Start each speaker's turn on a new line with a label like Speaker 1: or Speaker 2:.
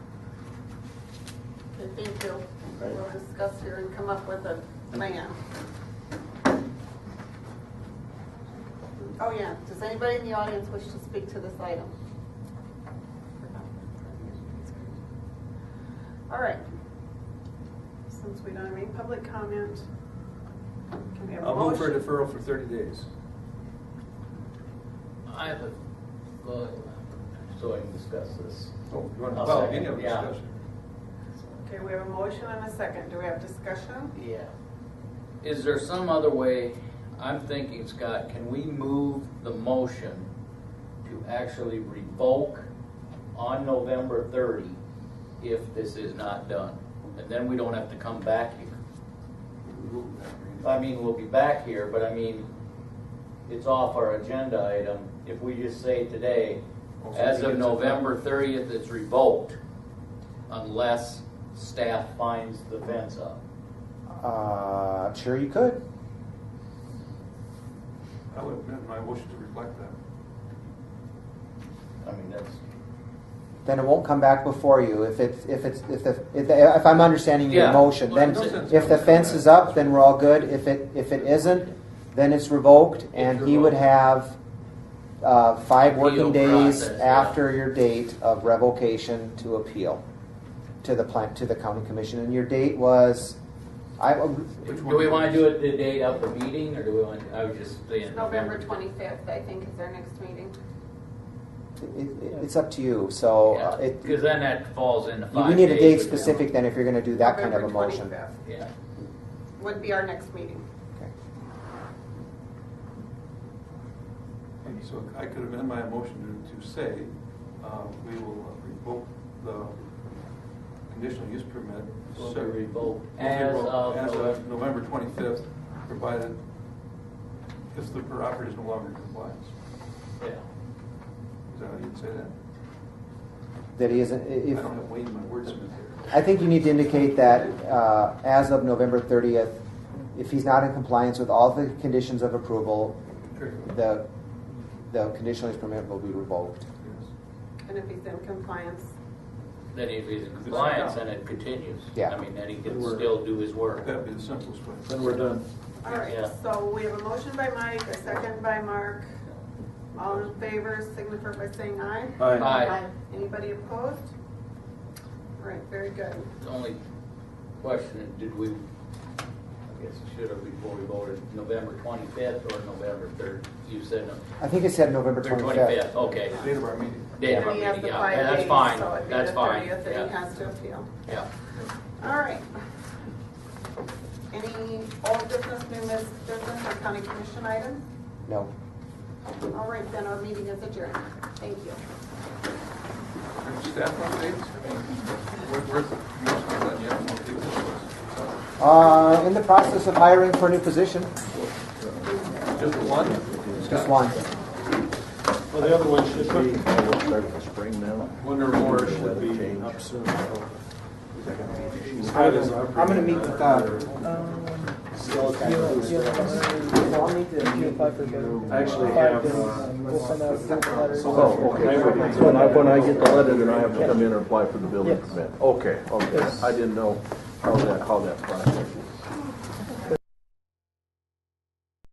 Speaker 1: Okay, thank you. We'll discuss here and come up with a plan. Oh, yeah, does anybody in the audience wish to speak to this item? All right. Since we don't have any public comment, can we have a
Speaker 2: I'll move for a
Speaker 1: motion?
Speaker 2: deferral for thirty days.
Speaker 3: I have a, go ahead.
Speaker 4: So I can discuss this.
Speaker 2: Oh, you want to,
Speaker 4: I'll
Speaker 2: well,
Speaker 4: second,
Speaker 2: any other
Speaker 4: yeah.
Speaker 2: discussion?
Speaker 1: Okay, we have a motion and a second. Do we have discussion?
Speaker 3: Yeah. Is there some other way, I'm thinking, Scott, can we move the motion to actually revoke on November thirty if this is not done? And then we don't have to come back here. I mean, we'll be back here, but I mean, it's off our agenda item. If we just say today,
Speaker 2: Oh,
Speaker 3: as of November thirtieth, it's revoked unless staff finds the fence up.
Speaker 5: Uh, sure you could.
Speaker 2: I would amend my motion to reflect that.
Speaker 3: I mean, that's,
Speaker 5: Then it won't come back before you. If it's, if it's, if the, if, the, if I'm understanding your
Speaker 3: Yeah.
Speaker 5: motion,
Speaker 3: Well,
Speaker 5: then
Speaker 3: no sense
Speaker 5: if the
Speaker 2: coming
Speaker 5: fence
Speaker 2: back.
Speaker 5: is up, then we're all good. If it, if it isn't, then it's revoked and he would
Speaker 3: revoked.
Speaker 5: have, uh, five
Speaker 3: Appeal
Speaker 5: working days
Speaker 3: process, yeah.
Speaker 5: after your date of revocation to appeal to the plant, to the county commission. And your date was, I,
Speaker 2: Which
Speaker 3: do
Speaker 2: one
Speaker 3: we
Speaker 2: is
Speaker 3: wanna
Speaker 2: it?
Speaker 3: do it the day of the meeting, or do we want, I was just saying.
Speaker 1: November 25th, I think, is our next meeting.
Speaker 5: it, it's up to you. So uh, it,
Speaker 3: Because then that falls into five
Speaker 5: we need a date
Speaker 3: days from now.
Speaker 5: specific then if you're gonna do that kind of a
Speaker 1: November
Speaker 5: motion.
Speaker 1: 25th.
Speaker 3: Yeah,
Speaker 1: would be our next meeting.
Speaker 5: Okay.
Speaker 2: So I could amend my motion to, to say, uh, we will revoke the conditional use permit.
Speaker 3: Will be
Speaker 2: so-
Speaker 3: revoked
Speaker 2: will be
Speaker 3: as
Speaker 2: revoked
Speaker 3: of
Speaker 2: as
Speaker 3: November-
Speaker 2: November twenty-fifth, provided if the property is no longer complies.
Speaker 3: yeah.
Speaker 2: Is that how you'd say that?
Speaker 5: That he isn't,
Speaker 2: I
Speaker 5: if,
Speaker 2: don't have Wayne, my wordsmith here.
Speaker 5: I think you need to indicate that uh, as of November 30th, if he's not in compliance with all the conditions of approval, the, the conditional use permit will be revoked.
Speaker 2: Yes.
Speaker 1: And if he's in compliance,
Speaker 3: Then if he's in compliance, then it continues.
Speaker 5: Yeah.
Speaker 3: I mean, then he can
Speaker 2: We're-
Speaker 3: still do his work.
Speaker 2: That'd be the simplest way.
Speaker 4: Then we're done.
Speaker 1: all right,
Speaker 3: Yeah.
Speaker 1: so we have a motion by Mike, a second by Mark. All in favor, signify by saying aye.
Speaker 2: Aye.
Speaker 3: Aye.
Speaker 1: Anybody opposed? All right, very good.
Speaker 3: The only question, did we, I guess it should have before we voted, November twenty-fifth or November third? You said no.
Speaker 5: I think it said November 25th.
Speaker 3: Okay.
Speaker 2: Date of our meeting.
Speaker 3: Date of our
Speaker 1: And he has
Speaker 3: meeting,
Speaker 1: the
Speaker 3: yeah,
Speaker 1: five
Speaker 3: yeah, that's
Speaker 1: days,
Speaker 3: fine,
Speaker 1: so it'd be
Speaker 3: that's
Speaker 1: the
Speaker 3: fine,
Speaker 1: 30th that he
Speaker 3: yeah,
Speaker 1: has to appeal.
Speaker 3: yeah.
Speaker 1: All right. Any old business, new business, business, or county commission items?
Speaker 5: No.
Speaker 1: All right, then our meeting is adjourned. Thank you.
Speaker 2: Staff updates? Where- Where's the commissioner's on yet? I'll take this
Speaker 5: Uh, In the process of hiring for a new position,
Speaker 2: one. Just the one?
Speaker 5: just one.
Speaker 6: Well, the other one should be, one or more should be up soon.
Speaker 5: I'm going to meet with, uh,
Speaker 6: I actually have, uh,
Speaker 7: Oh, okay. So when I, when I get the letter, then I have to come in and apply for the building permit? Okay, okay. I didn't know how that, how that process worked.